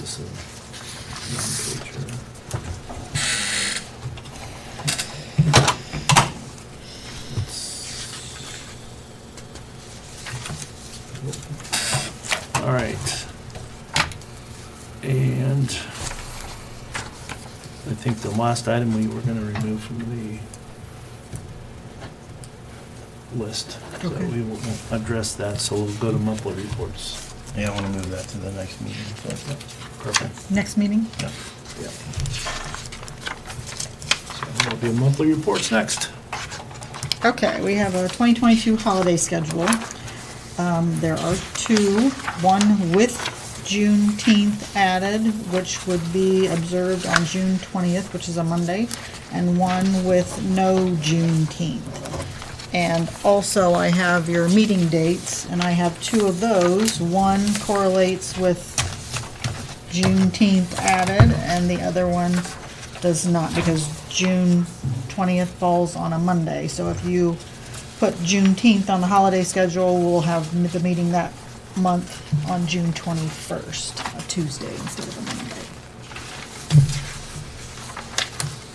this a non-pager? All right. And I think the last item we were gonna remove from the list. So Okay. we will address that, so we'll go to monthly reports. Yeah, I want to move that to the next meeting. so. Perfect. Next meeting? Yeah. Yep. So there'll be monthly reports next. Okay, we have a 2022 holiday schedule. Um, There are two, one with Juneteenth added, which would be observed on June 20th, which is a Monday, and one with no Juneteenth. And also, I have your meeting dates, and I have two of those. One correlates with Juneteenth added, and the other one does not, because June twentieth falls on a Monday, so if you put Juneteenth on the holiday schedule, we'll have m- the meeting that month on June twenty-first, a Tuesday instead of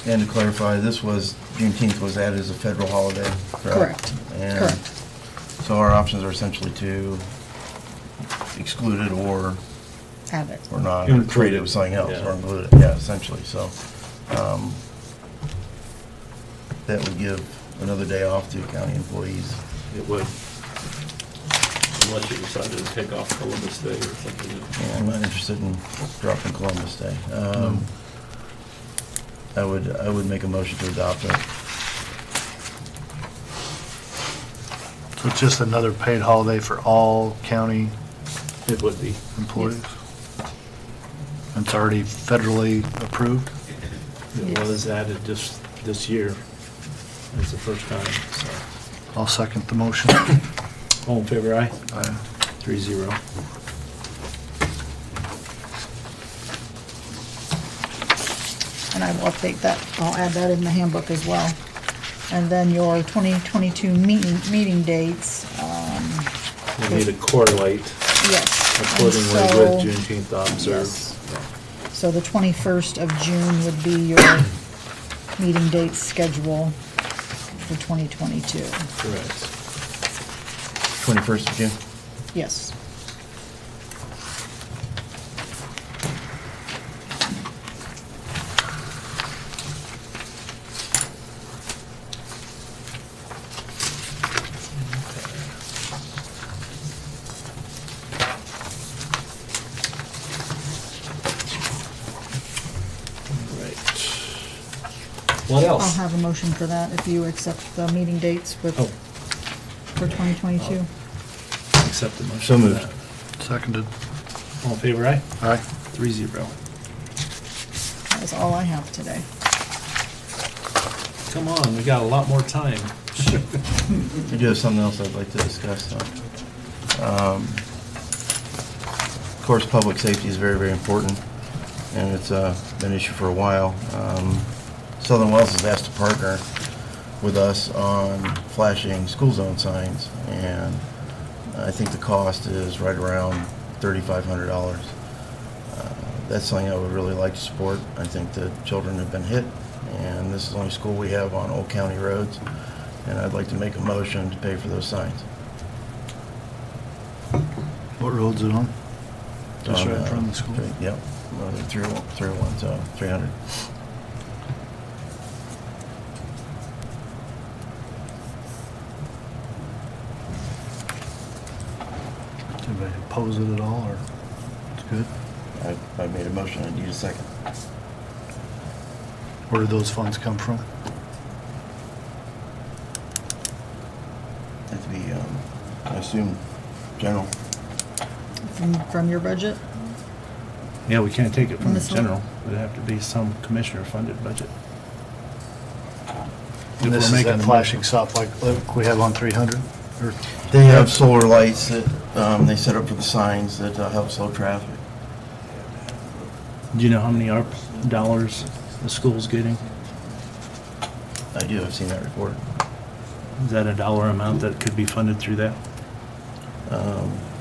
a Monday. And to clarify, this was, Juneteenth was added as a federal holiday, correct? Correct, And correct. So our options are essentially to exclude it or, Have it. or not, Include treat it it, with something else, yeah. or include it, yeah, essentially, so. um, That would give another day off to county employees. It would. Unless you decided to take off Columbus Day or something. Yeah, I'm not interested in dropping Columbus Day. Um, Mm-hmm. I would, I would make a motion to adopt it. So it's just another paid holiday for all county It would be. employees? It's already federally approved? It Yes. was added just this year. It's the first time, so. I'll second the motion. All in favor, aye? Aye. Three zero. And I will update that, I'll add that in the handbook as well. And then your twenty twenty-two meeting, meeting dates, um, We need to correlate yes. and accordingly so- with Juneteenth Yes. observed. So the 21st of June would be your meeting date schedule for 2022. Correct. 21st of June? Yes. Right. What else? I'll have a motion for that if you accept the meeting dates with, Oh. for 2022. Uh-huh. Accept the motion. So moved. for that. Seconded. All in favor, aye? Aye. Three zero. That is all I have today. Come on, we got a lot more time. I do have something else I'd like to discuss, though. Um, Of course, public safety is very, very important, and it's uh, been an issue for a while. Um, Southern Wells has asked to partner with us on flashing school zone signs, and I think the cost is right around $3,500. Uh, That's something I would really like to support. I think the children have been hit, and this is the only school we have on Old County roads, and I'd like to make a motion to pay for those signs. What road's it on? Just On, right in uh, front of the school? three- Yep, well, they're three, oh- three oh one, so three hundred. Anybody oppose it at all, or it's good? I, I made a motion, I need a second. Where do those funds come from? That'd be, um, I assume, general. From, from your budget? Yeah, we can't take it from the Missile? general. It'd have to be some commissioner-funded budget. If And we're this is making that the flashing stop like like we have on 300? Or They have solar lights that, um, they set up for the signs that uh, help slow traffic. Do you know how many ARP dollars the school's getting? I do, I've seen that report. Is that a dollar amount that could be funded through that? Um,